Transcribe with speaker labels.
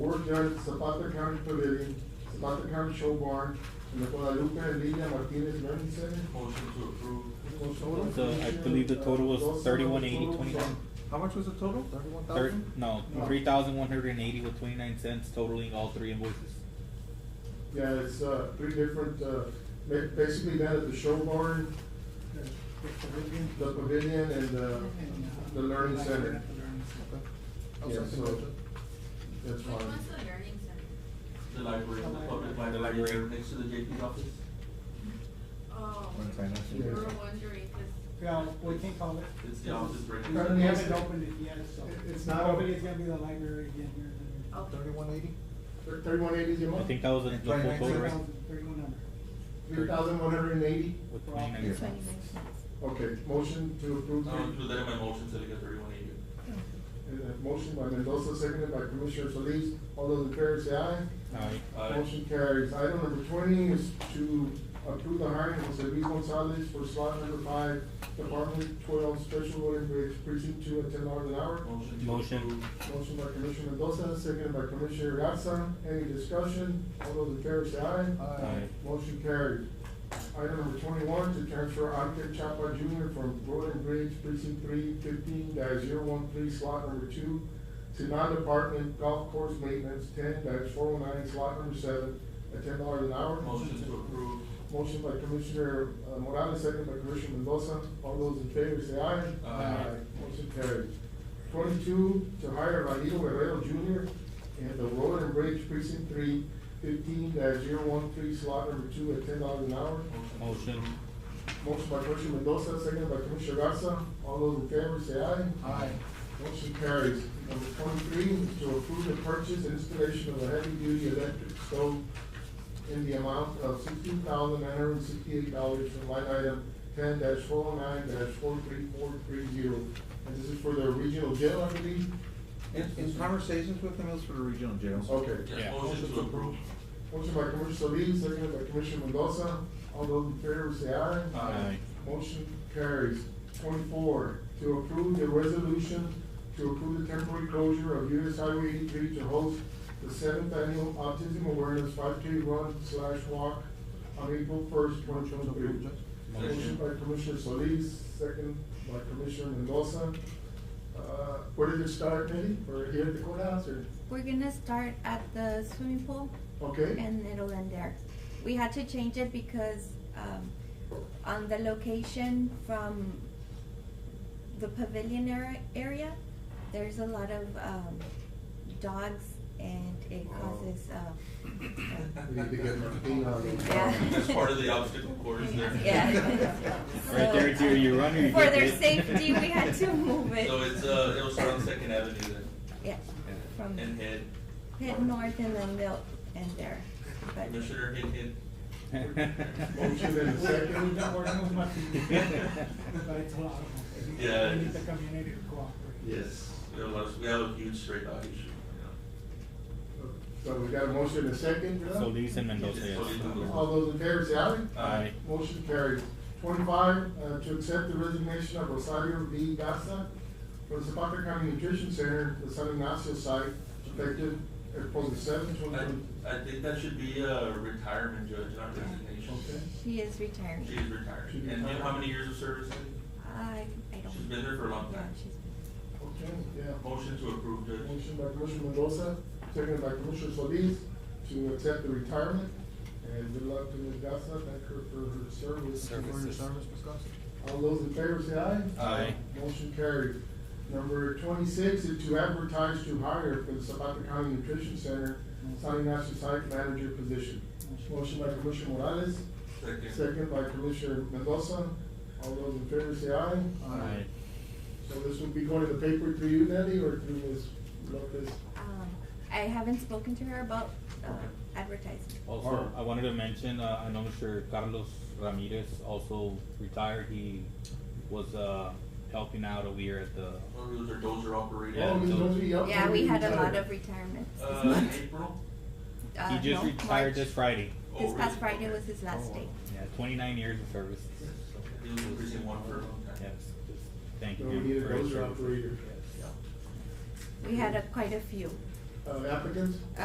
Speaker 1: Robert Yard, Zapata County Pavilion, Zapata County Show Barn, and the Guadalupe and Lidia Martinez Learning Center.
Speaker 2: Motion to approve.
Speaker 3: The- I believe the total was 31,829.
Speaker 4: How much was the total? Thirty-one
Speaker 3: Thir-
Speaker 4: thousand?
Speaker 3: no,
Speaker 1: No.
Speaker 3: three thousand one hundred and eighty with twenty-nine cents totaling all three invoices.
Speaker 1: Yeah, it's, uh, three different, uh, ba- basically that is the show barn, the pavilion, and, uh, the learning center.
Speaker 4: I'll
Speaker 1: Yeah,
Speaker 4: second
Speaker 1: so-
Speaker 4: motion.
Speaker 1: That's
Speaker 5: Which
Speaker 1: fine.
Speaker 5: one's the learning center?
Speaker 2: The library, the public library,
Speaker 3: The library.
Speaker 2: next to the JP's office.
Speaker 5: Oh, we
Speaker 1: Yeah.
Speaker 5: were wondering, cause
Speaker 6: Yeah, we can't call it.
Speaker 2: It's the office right
Speaker 6: We
Speaker 2: there.
Speaker 6: haven't opened it yet, so.
Speaker 1: It- it's not open. Oh.
Speaker 6: Hopefully it's gonna be the library again here. in
Speaker 5: Okay.
Speaker 4: Thirty-one eighty?
Speaker 1: Thirty-one eighty, you
Speaker 3: I
Speaker 1: want?
Speaker 3: think that was the the full
Speaker 4: 29
Speaker 3: total,
Speaker 6: there.
Speaker 3: right?
Speaker 6: 3,000, 3,100.
Speaker 1: Three thousand one hundred and eighty?
Speaker 3: With
Speaker 6: For all
Speaker 3: twenty-nine
Speaker 6: three.
Speaker 3: cents.
Speaker 1: Okay, motion to approve.
Speaker 2: I'll include that in my motion so we get thirty-one eighty.
Speaker 1: And, uh, Motion by Mendoza, seconded by Commissioner Solis. All those in favor say aye.
Speaker 3: Aye.
Speaker 2: Aye.
Speaker 1: Motion carries. Item number twenty is to approve the hiring of Jose Luis Gonzalez for slot number five, Department twelve, Special Road and Bridge, precinct two, at ten dollars an hour.
Speaker 2: Motion to
Speaker 3: Motion.
Speaker 2: approve.
Speaker 1: Motion by Commissioner Mendoza, seconded by Commissioner Gatsa. Any discussion? All those in favor say aye.
Speaker 3: Aye.
Speaker 1: Motion carried. Item number twenty-one, to transfer Ante Chapa Junior from Road and Bridge Precinct Three fifteen 13 slot number two to non-department golf course maintenance ten four oh nine, slot number seven, at ten dollars an hour.
Speaker 2: Motion to approve.
Speaker 1: Motion by Commissioner uh, Morales, second by Commissioner Mendoza. All those in favor say aye.
Speaker 2: Aye.
Speaker 1: Motion carried. Twenty-two, to hire Raido Guerrero Junior in the Road and Bridge Precinct Three, fifteen dash zero one three, slot number two, at ten dollars an hour.
Speaker 2: to
Speaker 3: Motion.
Speaker 2: approve.
Speaker 1: Motion by Commissioner Mendoza, second by Commissioner Garza. All those in favor say aye.
Speaker 4: Aye.
Speaker 1: Motion carries. Number twenty-three, to approve the purchase and installation of a heavy-duty electric stove in the amount of sixteen thousand nine hundred and sixty-eight dollars from line item ten four oh nine four three four three zero. And this is for the regional jail, I believe?
Speaker 4: In, in conversations with them, it was for the regional jail.
Speaker 1: Okay.
Speaker 2: Yes,
Speaker 3: Yeah.
Speaker 2: motion to approve.
Speaker 1: Motion by Commissioner Solis, second by Commissioner Mendoza. All those in favor say aye.
Speaker 2: Aye.
Speaker 1: Motion carries. Twenty-four, to approve the resolution to approve the temporary closure of US Highway eighty-three to host the seventh annual autism awareness five K run slash walk on April first, twenty twenty-three.
Speaker 2: Motion.
Speaker 1: Motion by Commissioner Solis, second by Commissioner Mendoza. Uh, where did it start, Eddie? Or here at the courthouse, or,
Speaker 7: We're gonna start at the swimming pool
Speaker 1: okay?
Speaker 7: and it'll end there. We had to change it because, um, on the location from the pavilion ar- area, there's a lot of, um, dogs and it causes, uh,
Speaker 1: We need to get Martina on it.
Speaker 7: Yeah.
Speaker 2: That's part of the obstacle course there.
Speaker 7: Yeah.
Speaker 3: Right there, it's either you run or you
Speaker 7: For
Speaker 3: get
Speaker 7: their
Speaker 3: hit.
Speaker 7: safety, we had to move it.
Speaker 2: So it's, uh, it'll start on Second Avenue
Speaker 7: yeah,
Speaker 2: then,
Speaker 7: from
Speaker 2: and head.
Speaker 7: Pitt North and then they'll end there. But-
Speaker 2: Commissioner hit hit.
Speaker 1: Motion and a second.
Speaker 6: We've been working with Martin, but it's a lot of them.
Speaker 2: Yeah,
Speaker 6: We
Speaker 2: it
Speaker 6: need the
Speaker 2: is.
Speaker 6: community to cooperate.
Speaker 2: Yes, we have a lot, of- we have a huge straight dog issue.
Speaker 1: So we got a motion and a second, yeah?
Speaker 3: Solis and Mendoza,
Speaker 2: It's totally
Speaker 3: yes.
Speaker 2: doable.
Speaker 1: All those in favor say aye.
Speaker 3: Aye.
Speaker 1: Motion carries. Twenty-five, uh, to accept the resignation of Rosario V. Gasa from Zapata County Nutrition Center, the San Ignacio site, effective April the seventh, twenty twenty.
Speaker 2: I, I think that should be a retirement judge, not resignation.
Speaker 1: Okay.
Speaker 7: She is retiring.
Speaker 2: She's retired.
Speaker 1: She's
Speaker 2: And you know
Speaker 1: retired.
Speaker 2: how many years of service? Eddie?
Speaker 7: I, I don't.
Speaker 2: She's been there for a long
Speaker 7: Yeah,
Speaker 2: time.
Speaker 7: she's been-
Speaker 1: Okay, yeah.
Speaker 2: Motion to approve, Judge.
Speaker 1: Motion by Commissioner Mendoza, seconded by Commissioner Solis to accept the retirement. And good luck to Ms. Gasa. Thank her for her service.
Speaker 4: For your service, Ms. Garcia.
Speaker 1: All those in favor say aye.
Speaker 2: Aye.
Speaker 1: Motion carried. Number twenty-six is to advertise to hire for the Zapata County Nutrition Center, San Ignacio Site Manager position. Motion by Commissioner Morales,
Speaker 2: Second.
Speaker 1: second by Commissioner Mendoza. All those in favor say aye.
Speaker 3: Aye.
Speaker 1: So this will be going to the paper through you, Nelly, or through Ms. Lopez?
Speaker 7: Um, I haven't spoken to her about, uh, advertising.
Speaker 3: Also, I wanted to mention, uh, I know Mr. Carlos Ramirez also retired. He was, uh, helping out over here at the,
Speaker 2: Well, those are dozer operated.
Speaker 3: Yeah,
Speaker 1: Oh, Ms.
Speaker 3: so-
Speaker 1: Lopez, up
Speaker 7: Yeah,
Speaker 1: there,
Speaker 7: we had a
Speaker 1: you
Speaker 7: lot
Speaker 1: said.
Speaker 7: of retirements this
Speaker 2: Uh, in
Speaker 7: month.
Speaker 2: April?
Speaker 7: Uh,
Speaker 3: he just
Speaker 7: no,
Speaker 3: retired
Speaker 7: March.
Speaker 3: this Friday.
Speaker 2: Oh,
Speaker 7: This past
Speaker 2: really?
Speaker 7: Friday
Speaker 2: Okay.
Speaker 7: was his last day.
Speaker 3: Yeah, twenty-nine years of service.
Speaker 2: He was in precinct one for a long time.
Speaker 3: Yes, just thank you.
Speaker 1: So we need a
Speaker 3: for his
Speaker 1: dozer
Speaker 3: service.
Speaker 1: operator.
Speaker 3: Yes.
Speaker 2: Yeah.
Speaker 7: We had a, quite a few.
Speaker 1: Uh, applicants?